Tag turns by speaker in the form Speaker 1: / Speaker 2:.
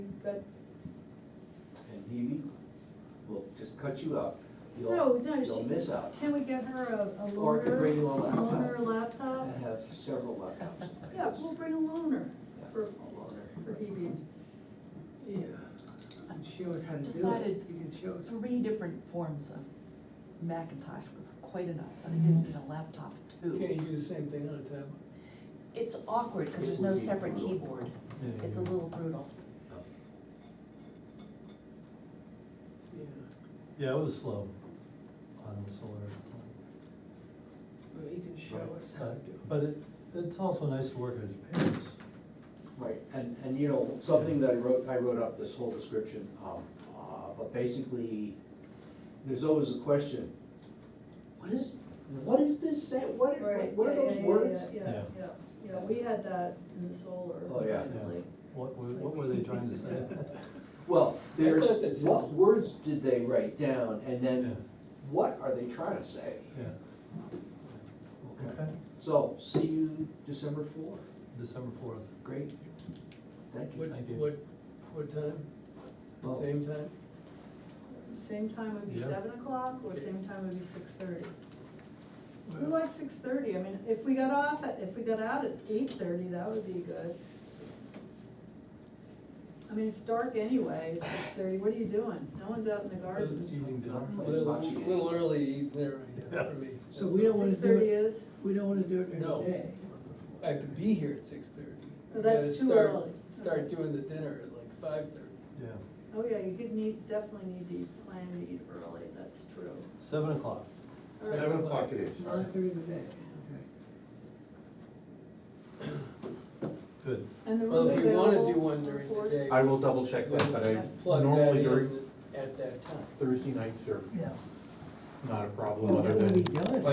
Speaker 1: but,
Speaker 2: And Hebe will just cut you out. You'll-
Speaker 1: No, no,
Speaker 2: You'll
Speaker 1: she-
Speaker 2: miss out.
Speaker 1: can we get her a, a loaner?
Speaker 2: Or I could bring you a laptop.
Speaker 1: Loaner
Speaker 2: I
Speaker 1: laptop?
Speaker 2: have several laptops.
Speaker 1: Yeah, we'll bring a loaner for, for Hebe.
Speaker 3: Yeah. Show us how to do it.
Speaker 4: decided
Speaker 3: You can show us.
Speaker 4: three different forms of Macintosh was quite enough, but I didn't need a laptop
Speaker 3: Can't
Speaker 4: too.
Speaker 3: you do the same thing on a tablet?
Speaker 4: It's awkward, because there's no separate keyboard, it's a little brutal.
Speaker 3: Yeah.
Speaker 5: Yeah, it was slow on the solar.
Speaker 3: Well, you can show us how to do
Speaker 5: But- But it, it's also nice to work as pairs.
Speaker 2: Right, and, and you know, something that I wrote, I wrote up this whole description, um, uh, but basically, there's always a question. What is, what is this say, what, are-
Speaker 1: Right,
Speaker 2: what are
Speaker 1: yeah,
Speaker 2: those
Speaker 1: yeah, yeah,
Speaker 2: words?
Speaker 1: Yeah, yeah, yeah, yeah, we had that in the solar.
Speaker 2: Oh, yeah.
Speaker 1: definitely.
Speaker 5: What, were- what were they trying to say?
Speaker 2: Well,
Speaker 3: I thought that's
Speaker 2: there's, what
Speaker 3: awesome.
Speaker 2: words did they write down, and
Speaker 5: Yeah.
Speaker 2: then what are they trying to say?
Speaker 5: Yeah, okay,
Speaker 2: So, see you December fourth,
Speaker 5: December fourth.
Speaker 2: great, thank
Speaker 3: it.
Speaker 2: you.
Speaker 3: What,
Speaker 5: Thank you.
Speaker 3: what, what time?
Speaker 2: Well,
Speaker 3: Same time?
Speaker 1: Same time would be
Speaker 5: Yeah.
Speaker 1: seven o'clock, or
Speaker 3: Okay.
Speaker 1: same time would be six thirty. We
Speaker 3: Well,
Speaker 1: like six thirty, I mean, if we got off, at if we got out at eight thirty, that would be good. I mean, it's dark anyway, it's six thirty, what are you doing? No one's out in the
Speaker 3: Doesn't
Speaker 1: gardens.
Speaker 3: seem-
Speaker 5: Evening dinner.
Speaker 3: A little, little early evening there, I guess, for me.
Speaker 6: So we don't wanna
Speaker 1: Six thirty
Speaker 6: do it,
Speaker 1: is,
Speaker 6: we don't wanna do it during
Speaker 3: No.
Speaker 6: the day.
Speaker 3: I have to be here at six thirty.
Speaker 1: Well, that's too early.
Speaker 3: Start doing the dinner at like five thirty.
Speaker 5: Yeah,
Speaker 1: oh yeah, you could need, definitely need to plan to eat early, that's true.
Speaker 5: seven o'clock.
Speaker 1: All right.
Speaker 7: Seven o'clock it is.
Speaker 6: Not during the day, okay.
Speaker 5: Good.
Speaker 1: And the
Speaker 3: Well,
Speaker 1: room's
Speaker 3: if you
Speaker 1: available?
Speaker 3: wanna do one during the day.
Speaker 7: I will double check that, but I,
Speaker 3: plug that in
Speaker 7: normally during
Speaker 3: At that time.
Speaker 7: Thursday nights are
Speaker 6: Yeah.
Speaker 7: not a problem,
Speaker 6: Well,
Speaker 7: other
Speaker 6: that would be
Speaker 7: than,
Speaker 6: done.